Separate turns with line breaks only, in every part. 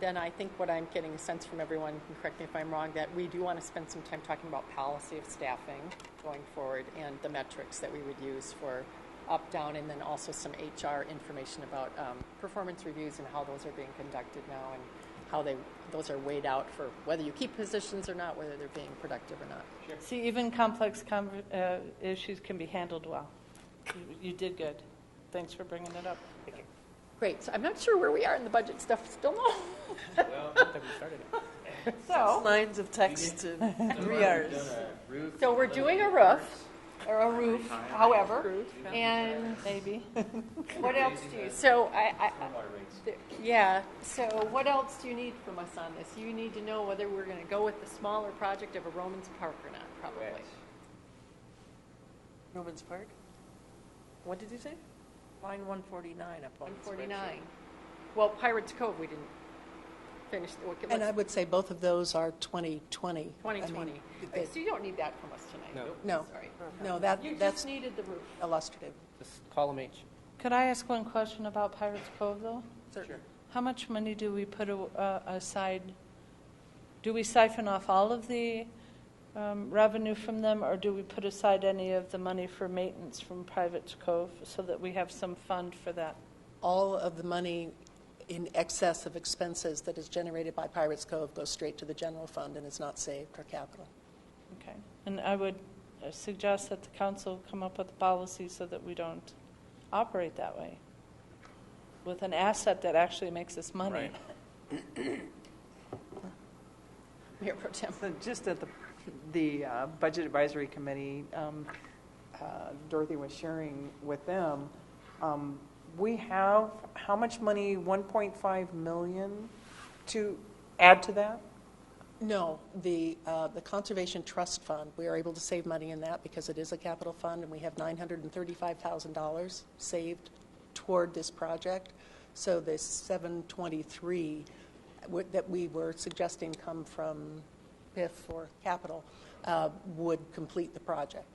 Then I think what I'm getting a sense from everyone, and correct me if I'm wrong, that we do want to spend some time talking about policy of staffing going forward and the metrics that we would use for up, down, and then also some HR information about um, performance reviews and how those are being conducted now and how they those are weighed out for whether you keep positions or not, whether they're being productive or not.
See, even complex conver- uh, issues can be handled well. You- You did good. Thanks for bringing it up.
Great. So I'm not sure where we are in the budget stuff. Still no.
So,
Lines of text to three hours.
So we're doing a roof.
or a roof, however,
And
maybe.
what else do you? So I, I,
Water rates.
There- Yeah, so what else do you need from us on this? You need to know whether we're gonna go with the smaller project of a Romans Park or not, probably.
Correct.
Romans Park? What did you say? Line one forty-nine up on
One
the
forty-nine. Well, Pirates Cove, we didn't finish, well, okay,
And I
let's,
would say both of those are 2020. I
twenty
mean,
twenty.
they-
So you don't need that from us tonight.
No.
No,
Sorry.
no,
You
that,
just
that's
needed the roof.
illustrative.
Just column H.
Could I ask one question about Pirates Cove, though?
Sure.
How much money do we put a- uh, aside? Do we siphon off all of the um, revenue from them, or do we put aside any of the money for maintenance from Pirates Cove so that we have some fund for that?
All of the money in excess of expenses that is generated by Pirates Cove goes straight to the general fund and is not saved or capital.
Okay. And I would uh, suggest that the council come up with a policy so that we don't operate that way with an asset that actually makes us money.
Right.
Mayor Pro Tem.
So Just at the, the uh, Budget Advisory Committee, um, uh, Dorothy was sharing with them, um, we have, how much money, 1.5 million to add to that?
No, the, uh, the Conservation Trust Fund, we are able to save money in that because it is a capital fund, and we have $935,000 saved toward this project. So this 723 would- that we were suggesting come from PIF or capital uh, would complete the project.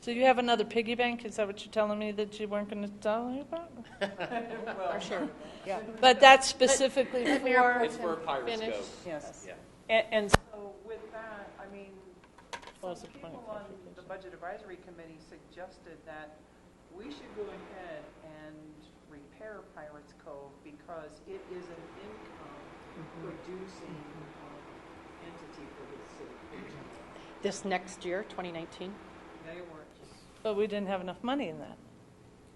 So you have another piggy bank? Is that what you're telling me that you weren't going to tell me about?
Yeah.
But that's specifically
Let Mayor Pro
for,
It's
Tem
where pirates
finish.
go.
Yes.
Yeah.
and- and
So with that, I mean,
Well,
some
it's a
people
point of
on the Budget Advisory Committee suggested that we should go ahead and repair Pirates Cove because it is an
Mm-hmm.
income-producing um, entity for the city.
This next year, twenty nineteen?
They weren't.
but we didn't have enough money in that.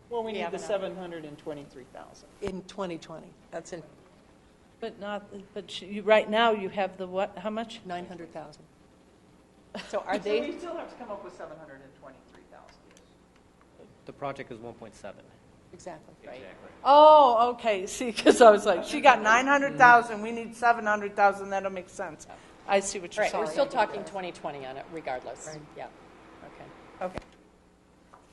Well, we
need
need
the
the 723,000.
In 2020, that's in
But not, but you, right now you have the what, how much?
900,000.
So are
So
they,
we still have to come up with 723,000.
The project is 1.7.
Exactly.
right,
Oh, okay, see, because I was like, she got
Mm-hmm.
900,000, we need 700,000, that'll make sense. I see what you're
right,
saying.
we're still talking twenty twenty on it regardless, yeah, okay.
Okay.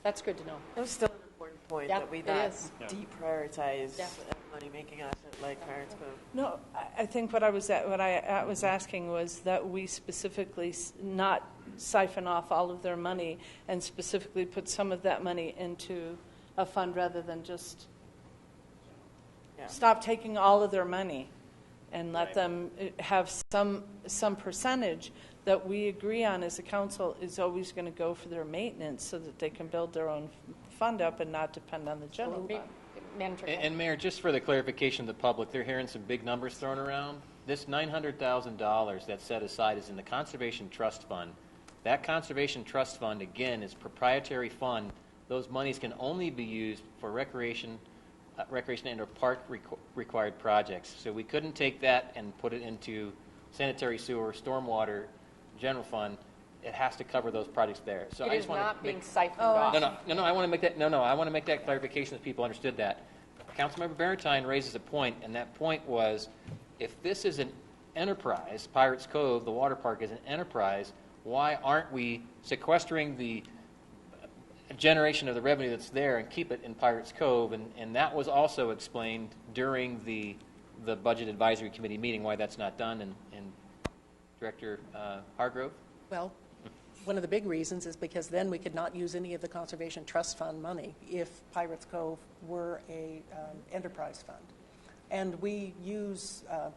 That's good to know.
That was still an important point,
Yeah,
that we
it
not
is.
Yeah.
deprioritize
Yeah.
money-making asset like Pirates Cove.
No, I- I think what I was, at- what I uh, was asking was that we specifically s- not siphon off all of their money and specifically put some of that money into a fund rather than just
Yeah.
stop taking all of their money and let them uh, have some, some percentage that we agree on as a council is always going to go for their maintenance so that they can build their own f- fund up and not depend on the general
Ma-
fund.
Manager.
And, and Mayor, just for the clarification of the public, they're hearing some big numbers thrown around. This $900,000 that's set aside is in the Conservation Trust Fund. That Conservation Trust Fund, again, is proprietary fund. Those monies can only be used for recreation, uh, recreation and or park requ- required projects. So we couldn't take that and put it into sanitary sewer, stormwater, general fund. It has to cover those projects there. So
It
I
is
just want to
not
make,
being siphoned off.
no, no, no, no, Oh, I want to make that, no, no, I want to make that clarification that people understood that. Councilmember Barentine raises a point, and that point was, if this is an enterprise, Pirates Cove, the water park is an enterprise, why aren't we sequestering the generation of the revenue that's there and keep it in Pirates Cove? And, and that was also explained during the, the Budget Advisory Committee meeting, why that's not done, and, and Director uh, Hargrove?
Well, one of the big reasons is because then we could not use any of the Conservation Trust Fund money if Pirates Cove were a um, enterprise fund. And we use, uh,